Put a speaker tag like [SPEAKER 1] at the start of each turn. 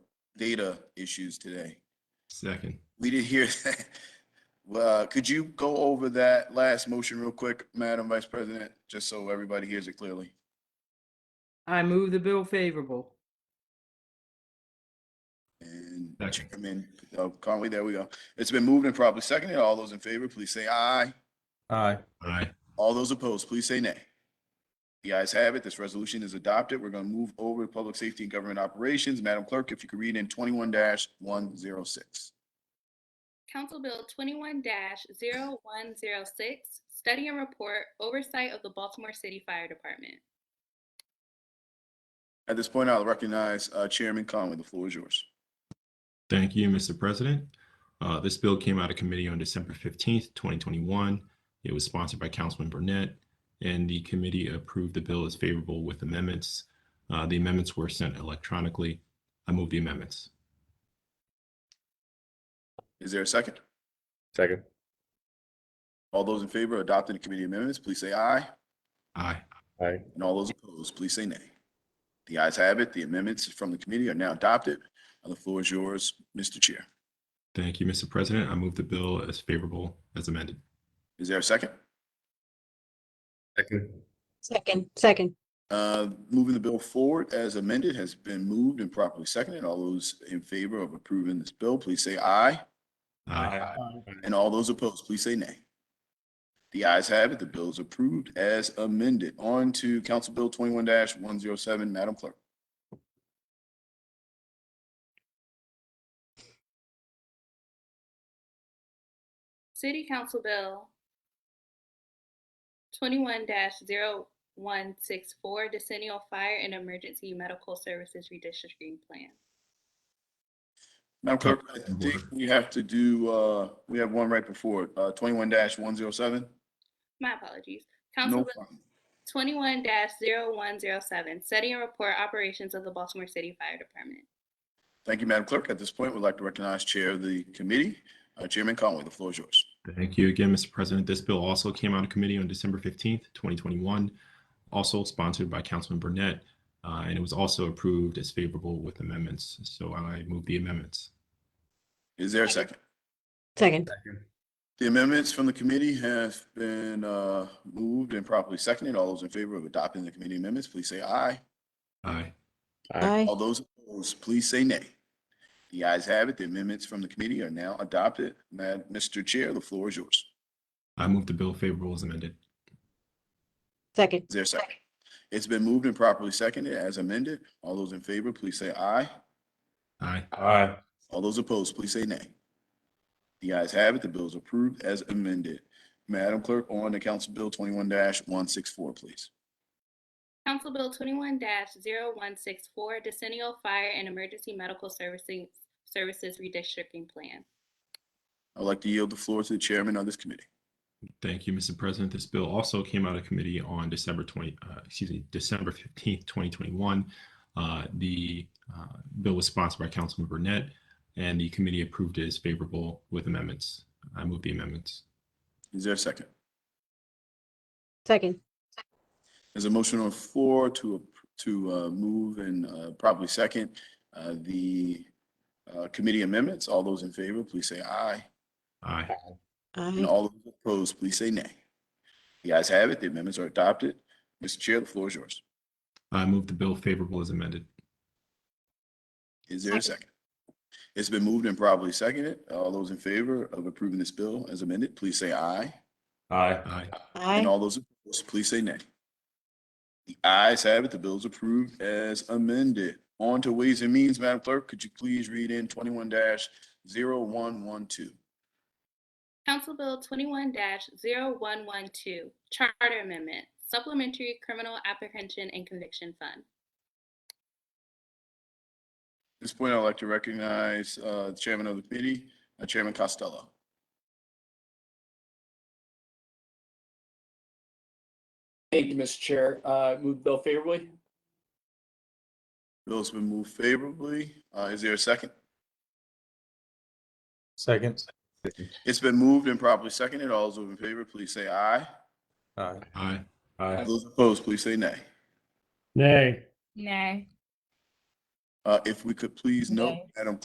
[SPEAKER 1] data issues today.
[SPEAKER 2] Second.
[SPEAKER 1] We did hear that. Well, uh, could you go over that last motion real quick, Madam Vice President, just so everybody hears it clearly?
[SPEAKER 3] I move the bill favorable.
[SPEAKER 1] And
[SPEAKER 2] Second.
[SPEAKER 1] Chairman uh, Conway, there we go. It's been moved and properly seconded. All those in favor, please say aye.
[SPEAKER 4] Aye.
[SPEAKER 2] Aye.
[SPEAKER 1] All those opposed, please say nay. The ayes have it. This resolution is adopted. We're going to move over to Public Safety and Government Operations. Madam Clerk, if you could read in twenty-one one zero six.
[SPEAKER 5] Council Bill twenty-one 106 Study and Report Oversight of the Baltimore City Fire Department.
[SPEAKER 1] At this point, I'll recognize uh, Chairman Conway. The floor is yours.
[SPEAKER 2] Thank you, Mr. President. Uh, this bill came out of committee on December fifteenth, twenty twenty-one. It was sponsored by Councilman Burnett, and the committee approved the bill as favorable with amendments. Uh, the amendments were sent electronically. I move the amendments.
[SPEAKER 1] Is there a second?
[SPEAKER 4] Second.
[SPEAKER 1] All those in favor of adopting the committee amendments, please say aye.
[SPEAKER 2] Aye.
[SPEAKER 4] Aye.
[SPEAKER 1] And all those opposed, please say nay. The ayes have it. The amendments from the committee are now adopted. Now The floor is yours, Mr. Chair.
[SPEAKER 2] Thank you, Mr. President. I move the bill as favorable as amended.
[SPEAKER 1] Is there a second?
[SPEAKER 4] Second.
[SPEAKER 6] Second, second,
[SPEAKER 1] Uh, Moving the bill forward as amended has been moved and properly seconded. All those in favor of approving this bill, please say aye.
[SPEAKER 2] Aye.
[SPEAKER 1] And all those opposed, please say nay. The ayes have it. The bill is approved as amended. On to Council Bill twenty-one one zero seven. Madam Clerk.
[SPEAKER 5] City Council Bill twenty-one 164 Decennial Fire and Emergency Medical Services Redistricting Plan.
[SPEAKER 1] Madam Clerk, I
[SPEAKER 2] Point of
[SPEAKER 1] think
[SPEAKER 2] order.
[SPEAKER 1] we have to do, uh, we have one right before it, uh, twenty-one one zero seven.
[SPEAKER 5] My apologies. Council
[SPEAKER 1] No
[SPEAKER 5] Bill
[SPEAKER 1] problem.
[SPEAKER 5] twenty-one 107 Study and Report Operations of the Baltimore City Fire Department.
[SPEAKER 1] Thank you, Madam Clerk. At this point, we'd like to recognize Chair of the committee, uh, Chairman Conway. The floor is yours.
[SPEAKER 2] Thank you again, Mr. President. This bill also came out of committee on December fifteenth, twenty twenty-one, also sponsored by Councilman Burnett, uh, and it was also approved as favorable with amendments. So I move the amendments.
[SPEAKER 1] Is there a second?
[SPEAKER 6] second,
[SPEAKER 1] The amendments from the committee have been, uh, moved and properly seconded. All those in favor of adopting the committee amendments, please say aye.
[SPEAKER 2] Aye.
[SPEAKER 6] aye,
[SPEAKER 1] All those opposed, please say nay. The ayes have it. The amendments from the committee are now adopted. Mad, Mr. Chair, the floor is yours.
[SPEAKER 2] I move the bill favorable as amended.
[SPEAKER 6] second,
[SPEAKER 1] Is there a second? It's been moved and properly seconded as amended. All those in favor, please say aye.
[SPEAKER 2] Aye.
[SPEAKER 4] Aye.
[SPEAKER 1] All those opposed, please say nay. The ayes have it. The bill is approved as amended. Madam Clerk, on to Council Bill twenty-one one six four, please.
[SPEAKER 5] Council Bill twenty-one 164 Decennial Fire and Emergency Medical Servicing, Services Redistricting Plan.
[SPEAKER 1] I'd like to yield the floor to the chairman of this committee.
[SPEAKER 2] Thank you, Mr. President. This bill also came out of committee on December 20, uh, excuse me, December 15th, 2021. Uh, The uh, bill was sponsored by Councilman Burnett, and the committee approved it as favorable with amendments. I move the amendments.
[SPEAKER 1] Is there a second?
[SPEAKER 6] second,
[SPEAKER 1] There's a motion on the floor to, ap- to uh, move and uh, properly second uh, the uh, committee amendments. All those in favor, please say aye.
[SPEAKER 2] Aye.
[SPEAKER 1] And
[SPEAKER 6] aye,
[SPEAKER 1] all those opposed, please say nay. The ayes have it. The amendments are adopted. Mr. Chair, the floor is yours.
[SPEAKER 2] I move the bill favorable as amended.
[SPEAKER 1] Is there a second? It's been moved and properly seconded. All those in favor of approving this bill as amended, please say aye.
[SPEAKER 4] Aye.
[SPEAKER 2] Aye.
[SPEAKER 1] And
[SPEAKER 6] aye,
[SPEAKER 1] all those opposed, please say nay. The ayes have it. The bill is approved as amended. On to Ways and Means, Madam Clerk, could you please read in twenty-one 112
[SPEAKER 5] Council Bill twenty-one 112 Charter Amendment, Supplementary Criminal Apprehension and Conviction Fund.
[SPEAKER 1] At this point, I'd like to recognize uh, the Chairman of the Committee, uh, Chairman Costello.
[SPEAKER 7] Thank you, Mr. Chair. Uh, Move the bill favorably.
[SPEAKER 1] Bill's been moved favorably. Uh, Is there a second?
[SPEAKER 4] Second.
[SPEAKER 1] It's been moved and properly seconded. All those in favor, please say aye.
[SPEAKER 4] Aye.
[SPEAKER 2] Aye.
[SPEAKER 4] Aye.
[SPEAKER 1] Those opposed, please say nay.
[SPEAKER 8] Nay.
[SPEAKER 9] Nay.
[SPEAKER 1] Uh, if we could please note,
[SPEAKER 6] Okay.
[SPEAKER 1] Madam